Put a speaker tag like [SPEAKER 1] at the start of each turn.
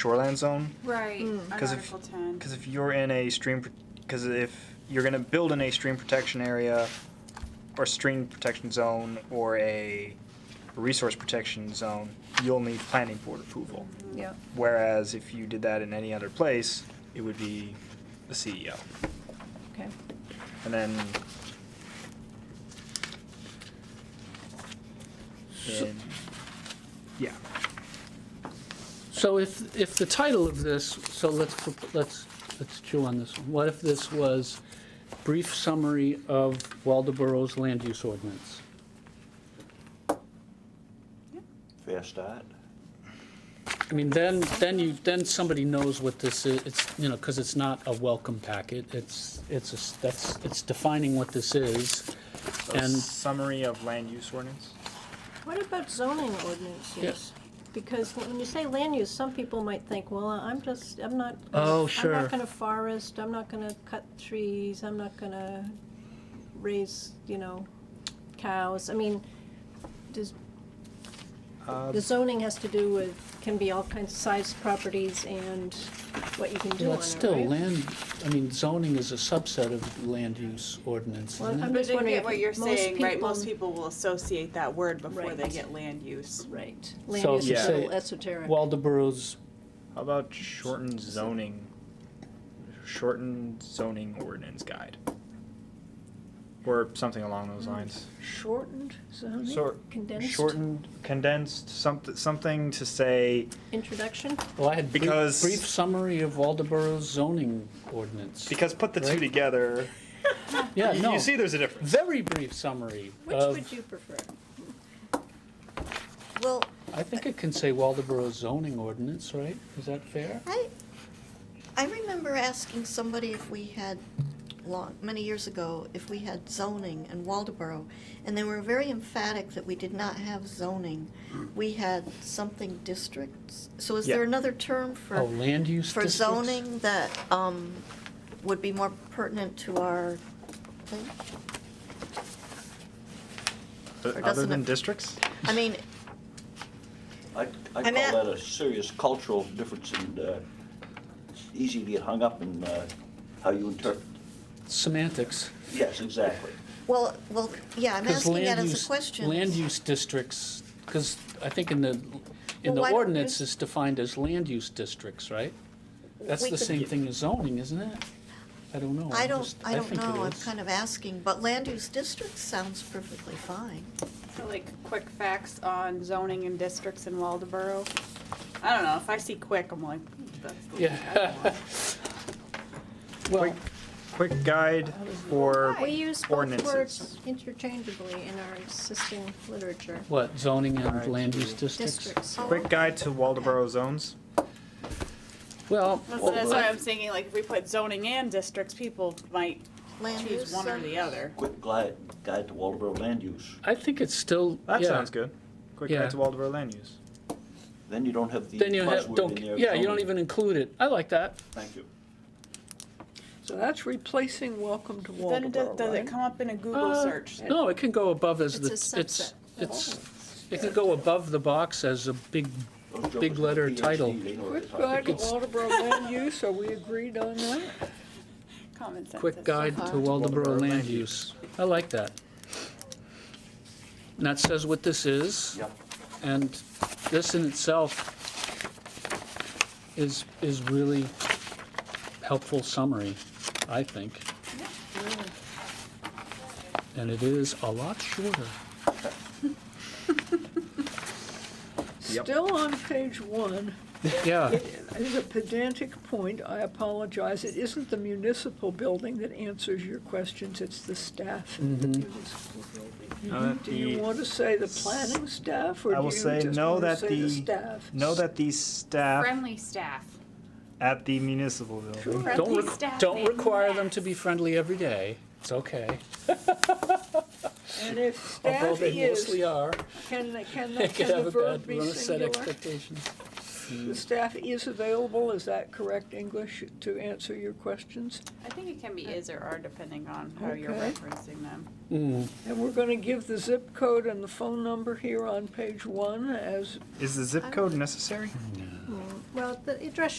[SPEAKER 1] shoreland zone.
[SPEAKER 2] Right, on
[SPEAKER 1] Because if-
[SPEAKER 2] Article 10.
[SPEAKER 1] Because if you're in a stream, because if you're going to build in a stream protection area, or stream protection zone, or a resource protection zone, you'll need planning board approval.
[SPEAKER 3] Yep.
[SPEAKER 1] Whereas if you did that in any other place, it would be the CEO.
[SPEAKER 3] Okay.
[SPEAKER 1] And then.
[SPEAKER 4] So-
[SPEAKER 1] And- yeah.
[SPEAKER 4] So if, if the title of this, so let's, let's, let's chew on this one. What if this was brief summary of Waldeboro's land use ordinance?
[SPEAKER 5] Fair start.
[SPEAKER 4] I mean, then, then you, then somebody knows what this is, it's, you know, because it's not a welcome packet, it's, it's, a s- that's, it's defining what this is.
[SPEAKER 1] So
[SPEAKER 4] And-
[SPEAKER 1] summary of land use ordinance.
[SPEAKER 3] What about zoning ordinances? Because when you say land use, some people might think, well, I'm just, I'm not.
[SPEAKER 4] Oh,
[SPEAKER 3] I'm
[SPEAKER 4] sure.
[SPEAKER 3] not gonna forest, I'm not gonna cut trees, I'm not gonna raise, you know, cows. I mean, does,
[SPEAKER 4] Um,
[SPEAKER 1] Uh,
[SPEAKER 3] the zoning has to do with, can be all kinds of size properties and what you can do
[SPEAKER 4] Well,
[SPEAKER 3] on
[SPEAKER 4] it's
[SPEAKER 3] it,
[SPEAKER 4] still
[SPEAKER 3] right?
[SPEAKER 4] land, I mean, zoning is a subset of land use ordinance,
[SPEAKER 3] Well,
[SPEAKER 4] isn't
[SPEAKER 3] I'm
[SPEAKER 4] it?
[SPEAKER 2] But
[SPEAKER 3] just
[SPEAKER 2] I
[SPEAKER 3] wondering
[SPEAKER 2] get
[SPEAKER 3] if
[SPEAKER 2] what you're
[SPEAKER 3] most
[SPEAKER 2] saying, right?
[SPEAKER 3] people-
[SPEAKER 2] Most people will associate that word before they
[SPEAKER 3] Right.
[SPEAKER 2] get land use.
[SPEAKER 3] Right,
[SPEAKER 4] So
[SPEAKER 3] land use
[SPEAKER 1] if
[SPEAKER 3] is a
[SPEAKER 1] you
[SPEAKER 3] little
[SPEAKER 4] say-
[SPEAKER 3] esoteric.
[SPEAKER 4] Waldeboro's,
[SPEAKER 1] How about shortened zoning? Shortened zoning ordinance guide. Or something along those lines.
[SPEAKER 3] Shortened zoning,
[SPEAKER 1] So-
[SPEAKER 3] condensed
[SPEAKER 1] Shortened, condensed, something, something to say,
[SPEAKER 3] introduction?
[SPEAKER 4] well, I had brief,
[SPEAKER 1] Because-
[SPEAKER 4] brief summary of Waldeboro's zoning ordinance.
[SPEAKER 1] because put the two
[SPEAKER 4] Right.
[SPEAKER 1] together,
[SPEAKER 4] Yeah,
[SPEAKER 1] you,
[SPEAKER 4] no,
[SPEAKER 1] you see there's a difference.
[SPEAKER 4] very brief summary
[SPEAKER 3] Which
[SPEAKER 4] of,
[SPEAKER 3] would you prefer?
[SPEAKER 6] Well,
[SPEAKER 4] I think it can say Waldeboro's zoning ordinance, right? Is that fair?
[SPEAKER 6] I, I remember asking somebody if we had, long, many years ago, if we had zoning in Waldeboro, and they were very emphatic that we did not have zoning. We had something districts. So is there
[SPEAKER 1] Yeah.
[SPEAKER 6] another term for?
[SPEAKER 4] Oh, land use
[SPEAKER 6] For
[SPEAKER 4] districts?
[SPEAKER 6] zoning that um, would be more pertinent to our thing?
[SPEAKER 1] But
[SPEAKER 6] Or
[SPEAKER 1] Other
[SPEAKER 6] doesn't
[SPEAKER 1] than
[SPEAKER 6] it-
[SPEAKER 1] districts?
[SPEAKER 6] I mean,
[SPEAKER 5] I, I
[SPEAKER 6] I'm at-
[SPEAKER 5] call that a serious cultural difference and uh, it's easy to get hung up in uh, how you interpret.
[SPEAKER 4] Semantics.
[SPEAKER 5] Yes, exactly.
[SPEAKER 6] well, well, yeah, I'm
[SPEAKER 4] 'Cause
[SPEAKER 6] asking that
[SPEAKER 4] land
[SPEAKER 6] as
[SPEAKER 4] use-
[SPEAKER 6] a question.
[SPEAKER 4] Land use districts, because I think in the, in
[SPEAKER 6] Well, why
[SPEAKER 4] the
[SPEAKER 6] don't
[SPEAKER 4] ordinance
[SPEAKER 6] we-
[SPEAKER 4] it's defined as land use districts, right? That's
[SPEAKER 6] We
[SPEAKER 4] the
[SPEAKER 6] could-
[SPEAKER 4] same thing as zoning, isn't it? I don't know.
[SPEAKER 6] I
[SPEAKER 4] I'm
[SPEAKER 6] don't,
[SPEAKER 4] just-
[SPEAKER 6] I don't
[SPEAKER 4] think it
[SPEAKER 6] know, I'm
[SPEAKER 4] is.
[SPEAKER 6] kind of asking, but land use district sounds perfectly fine.
[SPEAKER 2] So like quick facts on zoning and districts in Waldeboro. I don't know, if I see quick, I'm like, "Hmm, that's the one I
[SPEAKER 4] Yeah.
[SPEAKER 2] don't want."
[SPEAKER 4] Well,
[SPEAKER 1] Quick guide for
[SPEAKER 3] We use both
[SPEAKER 1] ordinances.
[SPEAKER 3] words interchangeably in our existing literature.
[SPEAKER 4] what, zoning
[SPEAKER 1] Alright,
[SPEAKER 4] and land
[SPEAKER 1] so-
[SPEAKER 4] use districts?
[SPEAKER 3] Districts.
[SPEAKER 6] Oh.
[SPEAKER 1] Quick guide to Waldeboro zones.
[SPEAKER 4] Well,
[SPEAKER 2] That's that's why I'm thinking, like, if we put zoning and districts, people might
[SPEAKER 6] Land
[SPEAKER 2] choose
[SPEAKER 6] use.
[SPEAKER 2] one or
[SPEAKER 6] um,
[SPEAKER 2] the other.
[SPEAKER 5] Quick glide, guide to Waldeboro land use.
[SPEAKER 4] I think it's still,
[SPEAKER 1] That
[SPEAKER 4] yeah.
[SPEAKER 1] sounds good. Quick
[SPEAKER 4] Yeah.
[SPEAKER 1] guide to Waldeboro land use.
[SPEAKER 5] Then you don't have the
[SPEAKER 4] Then you have,
[SPEAKER 5] buzzword
[SPEAKER 4] don't,
[SPEAKER 5] in there.
[SPEAKER 4] yeah, you don't
[SPEAKER 5] zoning.
[SPEAKER 4] even include it. I like that.
[SPEAKER 5] Thank you.
[SPEAKER 7] So that's replacing welcome to
[SPEAKER 2] Then it does,
[SPEAKER 7] Waldeboro,
[SPEAKER 2] does it
[SPEAKER 7] right?
[SPEAKER 2] come up in a Google
[SPEAKER 4] Uh,
[SPEAKER 2] search?
[SPEAKER 4] No, it can go above as
[SPEAKER 3] It's
[SPEAKER 4] the,
[SPEAKER 3] a Oh,
[SPEAKER 4] it's,
[SPEAKER 3] subset.
[SPEAKER 4] it's, it can go above the box as a big,
[SPEAKER 5] Those jokers
[SPEAKER 4] Big
[SPEAKER 5] with
[SPEAKER 4] letter
[SPEAKER 5] PhD,
[SPEAKER 4] title.
[SPEAKER 5] they know what they're
[SPEAKER 7] Quick
[SPEAKER 5] talking
[SPEAKER 7] guide to
[SPEAKER 5] about.
[SPEAKER 7] Waldeboro land use, are we agreed on that?
[SPEAKER 2] Common sense.
[SPEAKER 4] quick
[SPEAKER 2] is-
[SPEAKER 4] guide to Waldeboro land use. I like that. And that says what this is.
[SPEAKER 5] Yeah.
[SPEAKER 4] And this in itself is, is really helpful summary, I think. And it is a lot shorter.
[SPEAKER 1] Yep.
[SPEAKER 7] Still on page one,
[SPEAKER 4] Yeah,
[SPEAKER 7] it is a pedantic point, I apologize, it isn't the municipal building that answers your questions, it's the staff in the municipal building.
[SPEAKER 1] Uh,
[SPEAKER 7] Do you
[SPEAKER 1] the-
[SPEAKER 7] want to say the planning staff,
[SPEAKER 1] I
[SPEAKER 7] or do
[SPEAKER 1] will
[SPEAKER 7] you just
[SPEAKER 1] say no
[SPEAKER 7] want to
[SPEAKER 1] that
[SPEAKER 7] say the
[SPEAKER 1] the-
[SPEAKER 7] staff?
[SPEAKER 1] Know that the staff
[SPEAKER 8] Friendly staff.
[SPEAKER 1] at the municipal building.
[SPEAKER 4] don't,
[SPEAKER 8] Friendly
[SPEAKER 4] re-
[SPEAKER 8] staff
[SPEAKER 4] don't
[SPEAKER 8] may
[SPEAKER 4] require them
[SPEAKER 8] relax.
[SPEAKER 4] to be friendly every day. It's okay,
[SPEAKER 7] And if
[SPEAKER 4] although
[SPEAKER 7] staff
[SPEAKER 4] they
[SPEAKER 7] is,
[SPEAKER 4] mostly are.
[SPEAKER 7] can, the- can,
[SPEAKER 4] They
[SPEAKER 7] the- can
[SPEAKER 4] could have
[SPEAKER 7] the
[SPEAKER 4] a bad,
[SPEAKER 7] verb be
[SPEAKER 4] run to set
[SPEAKER 7] singular?
[SPEAKER 4] expectations.
[SPEAKER 7] The staff is available, is that correct English, to answer your questions?
[SPEAKER 2] I think it can be is or are depending on how you're
[SPEAKER 7] Okay.
[SPEAKER 2] referencing them.
[SPEAKER 7] And we're going to give the zip code and the phone number here on page one as,
[SPEAKER 1] Is the zip code necessary?
[SPEAKER 3] Well, the address